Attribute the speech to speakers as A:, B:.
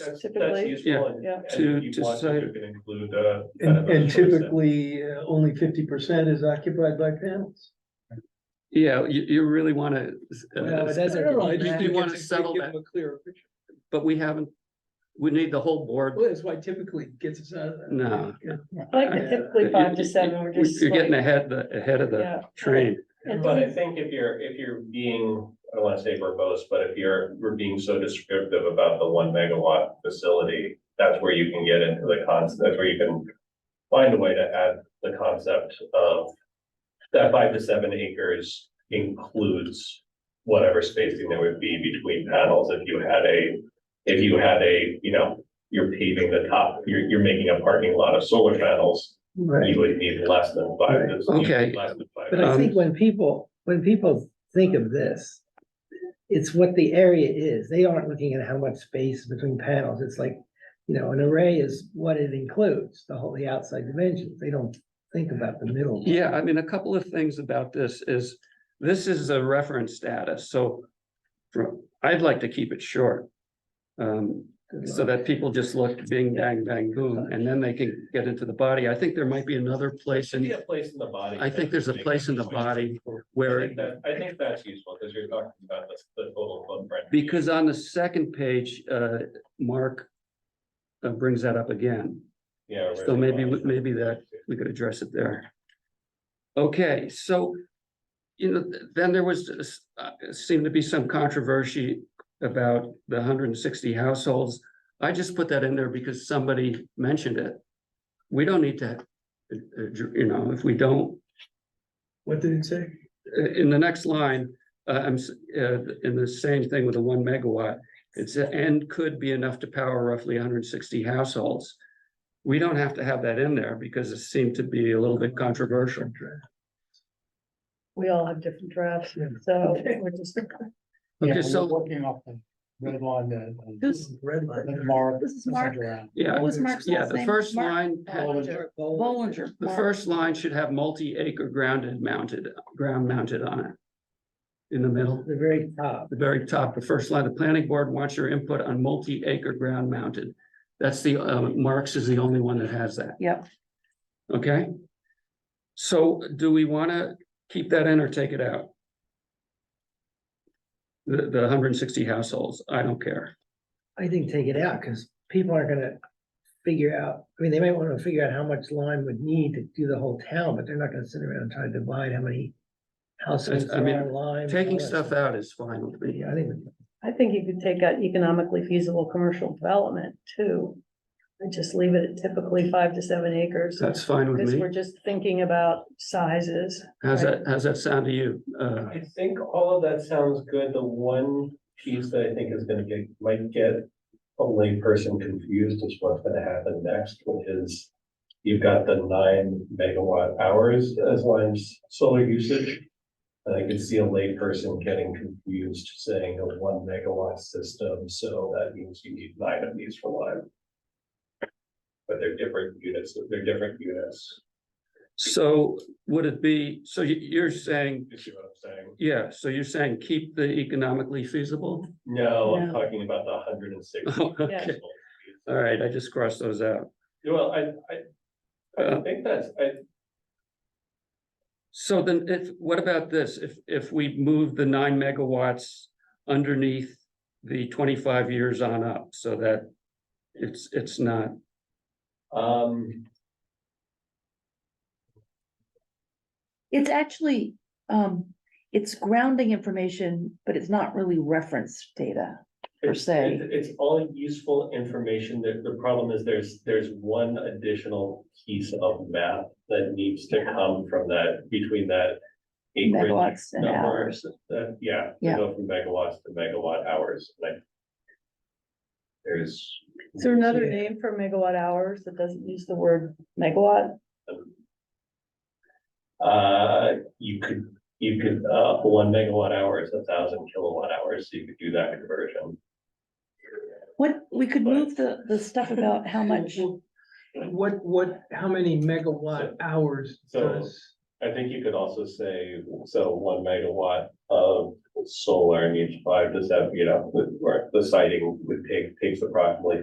A: That's, that's
B: Typically,
A: useful. and-
B: yeah.
A: and if
C: To-
A: you
C: to
A: want to,
C: decide.
A: you can Include, uh. kind
D: And,
A: of a
D: and
A: choice then.
D: typically, uh, only fifty percent is occupied by panels.
C: Yeah, you, you really uh, want to.
E: Well, it doesn't
D: I don't know, I
E: mean
D: just
E: that.
C: You
D: think
C: wanna
D: it's a good
C: settle
D: give
C: that.
D: them a clearer picture.
C: But we haven't, we need the whole board.
D: Well, that's why typically it gets us out of that.
C: No.
D: Yeah.
B: I like the typically five to seven, we're just.
C: You're getting
B: like-
C: ahead, the- ahead of the
B: Yeah.
C: train.
B: And
A: But I
B: then-
E: Mm-hmm.
A: think if you're, if you're being, I don't wanna say verbose, but if you're, we're being so descriptive about the one megawatt facility, that's where you can get into the concept, that's where you can find a way to add the concept of that five to seven acres includes whatever spacing there would be between panels if you had a, if you had a, you know, you're paving the top, you're, you're making a parking lot of solar panels,
D: Right,
A: you would need less than five.
D: Right.
A: you'd need
C: Okay.
A: less than five.
E: But I
C: Um,
E: think when people, when people think of this, it's what the area is. They aren't looking at how much space between panels. It's like, you know, an array is what it includes, the whole, the outside dimensions. They don't think about the middle.
C: Yeah, I mean, a couple of things about this is, this is a reference status, so from, I'd like to keep it short. Um, so that people just look bing, bang, bang, boom, and then they can get into the body. I think there might be another place
A: Should be
C: in
A: a place in the body.
C: I think there's a place in the body
A: I
C: where
A: think that, I think that's useful, because you're talking about the, the total footprint.
C: Because on the second page, uh, Mark uh, brings that up again.
A: Yeah. where
C: So
A: the
C: maybe, we-
A: body-
C: maybe that, we could address it there. Okay, so, you know, then there was, this, uh, seemed to be some controversy about the hundred and sixty households. I just put that in there because somebody mentioned it. We don't need to, uh, uh, you know, if we don't,
D: what did it say?
C: uh, in the next line, uh, I'm, s- uh, in the same thing with the one megawatt. It's, uh, and could be enough to power roughly hundred and sixty households. We don't have to have that in there because it seemed to be a little bit controversial.
B: We all have different drafts,
E: Yeah.
B: so we're just,
C: Okay, so,
F: Working off the red line, the.
B: this,
E: Red line.
F: the Mark.
G: This is Mark.
C: yeah,
G: What was Mark's
C: yeah,
G: last
C: the
G: name?
C: first
G: Mark
C: line,
G: Bollinger. Bollinger.
C: the
G: Mark.
C: first line should have multi-acre grounded mounted, ground mounted on it. In the middle,
E: The very top.
C: the very top, the first line, the planning board wants your input on multi-acre ground mounted. That's the, uh, Marx is the only one that has that.
G: Yep.
C: Okay? So do we wanna keep that in or take it out? The, the hundred and sixty households, I don't care.
E: I think take it out, because people aren't gonna figure out, I mean, they might wanna figure out how much lime would need to do the whole town, but they're not gonna sit around and try to divide how many houses
C: I
E: are
C: mean,
E: on lime. and all
C: Taking
E: that
C: stuff out is fine with me.
E: Yeah, I think,
B: I think you could take out economically feasible commercial development too. And just leave it at typically five to seven acres,
C: That's fine with
B: because we're
C: me.
B: just thinking about sizes.
C: How's that, how's that sound to you? Uh,
A: I think all of that sounds good, the one piece that I think is gonna get, might get a layperson confused is what's gonna happen next, which is you've got the nine megawatt hours as lines solar usage. And I could see a layperson getting confused, saying a one megawatt system, so that means you need nine of these for Lyme. But they're different units, they're different units,
C: so would it be, so you, you're saying,
A: you see what I'm saying?
C: yeah, so you're saying keep the economically feasible?
A: No, I'm
B: No.
A: talking about the hundred and sixty.
C: Oh, okay. All right, I just crossed those out.
A: Well, I, I, I
C: Uh,
A: think that's, I,
C: So then if, what about this? If, if we move the nine megawatts underneath the twenty-five years on up so that it's, it's not,
A: um,
G: It's actually, um, it's grounding information, but it's not really reference data. Per
A: it's,
G: se.
A: it- it's all useful information. The, the problem is there's, there's one additional piece of math that needs to come from that, between that acreage
G: Megawatts and
A: number.
G: hours.
A: That, yeah, to
G: Yeah.
A: go from megawatts to megawatt hours, like there's
B: Is there another name for megawatt hours that doesn't use the word megawatt?
A: Uh, you could, you could, uh, one megawatt hour is a thousand kilowatt hours, so you could do that conversion.
G: What, we could
A: But-
G: move the, the stuff about how much,
D: What, what, how many megawatt hours
A: So-
D: does?
A: I think you could also say, so one megawatt of solar needs five to seven, you know, with, where the siting would take, takes approximately